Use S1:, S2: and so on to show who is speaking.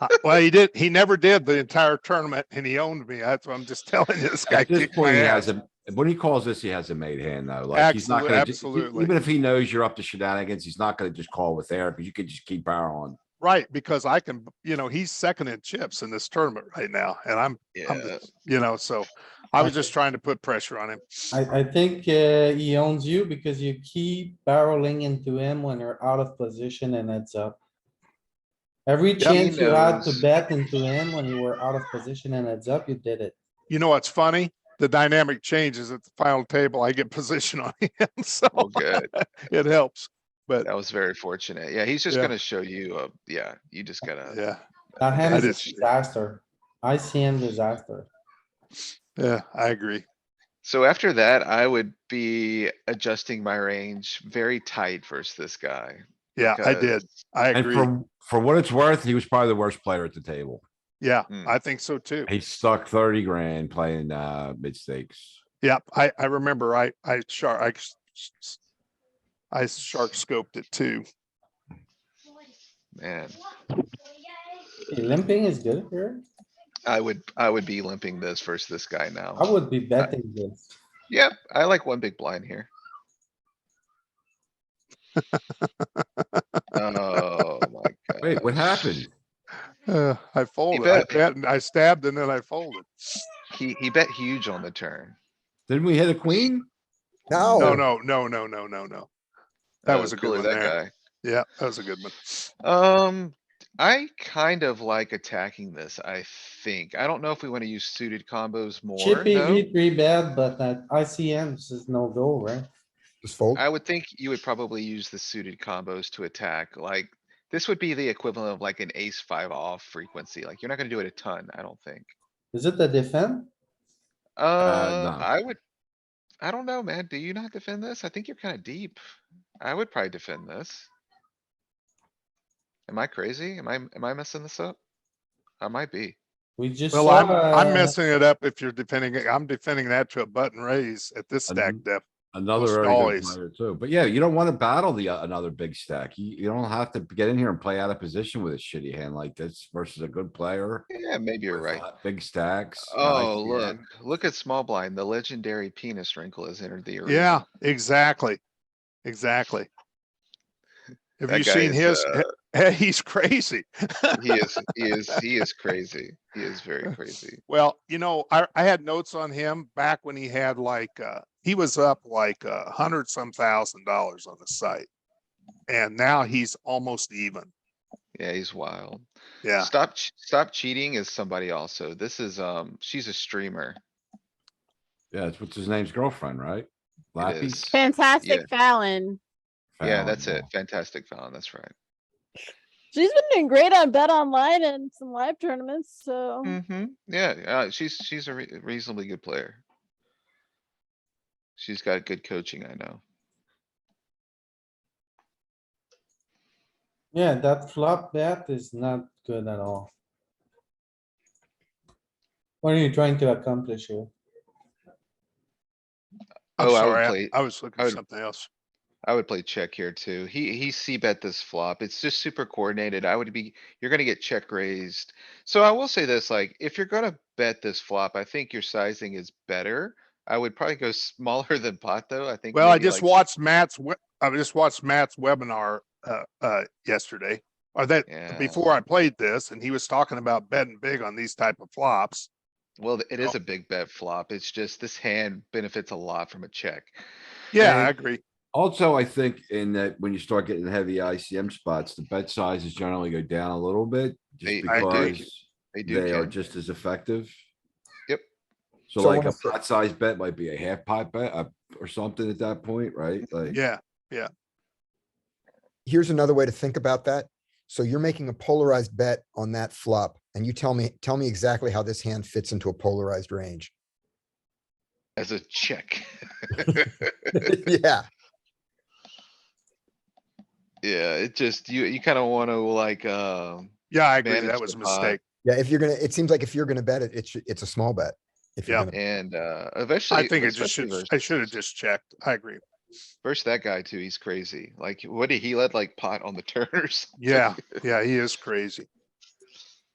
S1: Uh, Well, he did, he never did the entire tournament and he owned me. That's what I'm just telling you. This guy
S2: At this
S1: kicked my
S2: point, he
S1: ass.
S2: has a, when he calls this, he has a made hand though. Like he's not
S1: Absolute-
S2: gonna, ju- e-
S1: absolutely.
S2: even if he knows you're up to shenanigans, he's not gonna just call with there because you could just keep barreling.
S1: Right, because I can, you know, he's second in chips in this tournament right now and I'm, I'm,
S3: Yeah,
S1: the- you know, so I was
S4: Okay.
S1: just trying to put pressure on him.
S4: I, I think, uh, he owns you because you keep barreling into him when you're out of position and it's up. Every
S1: Yeah, he
S4: chance you had to
S3: knows.
S4: bet into him when you were out of position and it's up, you did it.
S1: You know what's funny? The dynamic changes at the final table. I get position on him, so
S3: well, good.
S1: it helps. But
S3: That was very fortunate. Yeah, he's just
S1: Yeah.
S3: gonna show you, uh, yeah, you just gotta.
S1: yeah,
S4: That hand
S1: That
S4: is a
S1: is-
S4: disaster. ICM disaster.
S1: yeah, I agree.
S3: So after that, I would be adjusting my range very tight versus this guy.
S1: Yeah, I did.
S3: 'cause-
S1: I
S2: And
S1: agree.
S2: for, for what it's worth, he was probably the worst player at the table.
S1: Yeah,
S2: Hmm.
S3: Mm.
S1: I think so too.
S2: He stuck thirty grand playing, uh, mid stakes.
S1: Yep, I, I remember I, I shark, I, s- s- s- I shark scoped it too.
S3: Man,
S4: Hey, Limping is good here.
S3: I would, I would be limping this versus this guy
S4: I
S3: now.
S4: would be betting this.
S3: Yep, I like one big blind here. Oh, my god.
S2: Wait, what happened?
S1: Uh, I folded, I
S3: bet.
S1: bet, and I stabbed and then I folded.
S3: He, he bet huge on the turn.
S2: Didn't we hit a queen?
S1: No,
S3: Oh.
S1: no, no, no, no, no, no. That was a good
S3: cooler
S1: one
S3: that
S1: there.
S3: guy.
S1: Yeah, that was a good one.
S3: Um, I kind of like attacking this, I think. I don't know if we wanna use suited combos more,
S4: Chippy
S3: though.
S4: V three bet, but that ICM is no go, right?
S5: Just fold.
S3: I would think you would probably use the suited combos to attack, like, this would be the equivalent of like an ace five off frequency, like, you're not gonna do it a ton, I don't think.
S4: Is it the defend?
S3: Uh,
S2: no.
S3: I would, I don't know, man, do you not defend this? I think you're kinda deep. I would probably defend this. Am I crazy? Am I, am I messing this up? I might be.
S4: We just
S1: Well,
S4: saw,
S1: I'm, I'm
S4: uh,
S1: messing it up if you're defending, it. I'm defending that to a button raise at this stack
S2: Mhm.
S1: depth.
S2: Another
S1: Most
S2: very good
S1: always.
S2: player too, but yeah, you don't wanna battle the, uh, another big stack. You, you don't have to get in here and play out of position with a shitty hand like this versus a good player.
S3: Yeah, maybe you're
S2: with,
S3: right.
S2: uh, Big stacks. an
S3: Oh,
S2: ICM.
S3: look, look at small blind. The legendary penis wrinkle has entered the arena.
S1: Yeah, exactly. Exactly. Have
S3: That
S1: you
S3: guy
S1: seen
S3: is, uh,
S1: his? He's crazy.
S3: He is, he is, he is crazy. He is very crazy.
S1: Well, you know, I, I had notes on him back when he had like, uh, he was up like a hundred some thousand dollars on the site. And now he's almost even.
S3: Yeah, he's wild.
S1: Yeah.
S3: Stop, Ch- stop cheating is somebody also. This is, um, she's a streamer.
S2: Yeah, it's what's his name's girlfriend, right?
S3: It
S2: Lappy?
S3: is.
S6: Fantastic Fallon.
S3: Yeah, that's it.
S2: Phenomenal.
S3: Fantastic Fallon. That's right.
S6: She's been doing great on Bet Online and some live tournaments, so
S3: Mm-hmm. Yeah, uh, she's, she's a re- reasonably good player. She's got good coaching, I know.
S4: yeah, that flop bet is not good at all. What are you trying to accomplish here?
S1: I'm
S3: Oh, I would
S1: sorry. I-
S3: play-
S1: I was looking
S3: I
S1: at
S3: would-
S1: something else.
S3: I would play check here too. He, he C bet this flop. It's just super coordinated. I would be, you're gonna get check raised. So I will say this, like, if you're gonna bet this flop, I think your sizing is better. I would probably go smaller than pot though. I think.
S1: Well, I
S3: maybe,
S1: just
S3: like,
S1: watched Matt's, we- I just watched Matt's webinar, uh, uh, yesterday. Or that,
S3: Yeah,
S1: before I played this and he was talking about betting big on these type of flops.
S3: well, it
S1: Oh.
S3: is a big bet flop. It's just this hand benefits a lot from a check.
S1: Yeah, I
S2: And-
S1: agree.
S2: Also, I think in that when you start getting heavy ICM spots, the bet sizes generally go down a little bit.
S3: They-
S2: Just
S1: I do.
S2: because
S3: They do.
S2: they are
S3: Ken.
S2: just as effective.
S3: Yep.
S2: So
S5: So
S2: like
S5: when
S2: a
S5: a fr-
S2: pot size bet might be a half pot bet uh, or something at that point, right? Like,
S1: Yeah.
S5: Here's another way to think about that. So you're making a polarized bet on that flop and you tell me, tell me exactly how this hand fits into a polarized range.
S3: As a check.
S5: Yeah,
S3: Yeah, it just, you, you kinda wanna like, uh,
S1: Yeah, I agree.
S3: manage
S1: That
S3: the
S1: was a
S3: pot.
S1: mistake.
S5: yeah. If you're gonna, it seems like if you're gonna bet it, it's, it's a small bet. If you're
S1: Yeah.
S5: gonna-
S3: and, uh, eventually.
S1: I think it just
S3: especially
S1: should,
S3: versus-
S1: I should have just checked. I agree.
S3: Versus that guy too, he's crazy. Like, what did he let like pot on the turn or something?
S1: Yeah, yeah, he is crazy.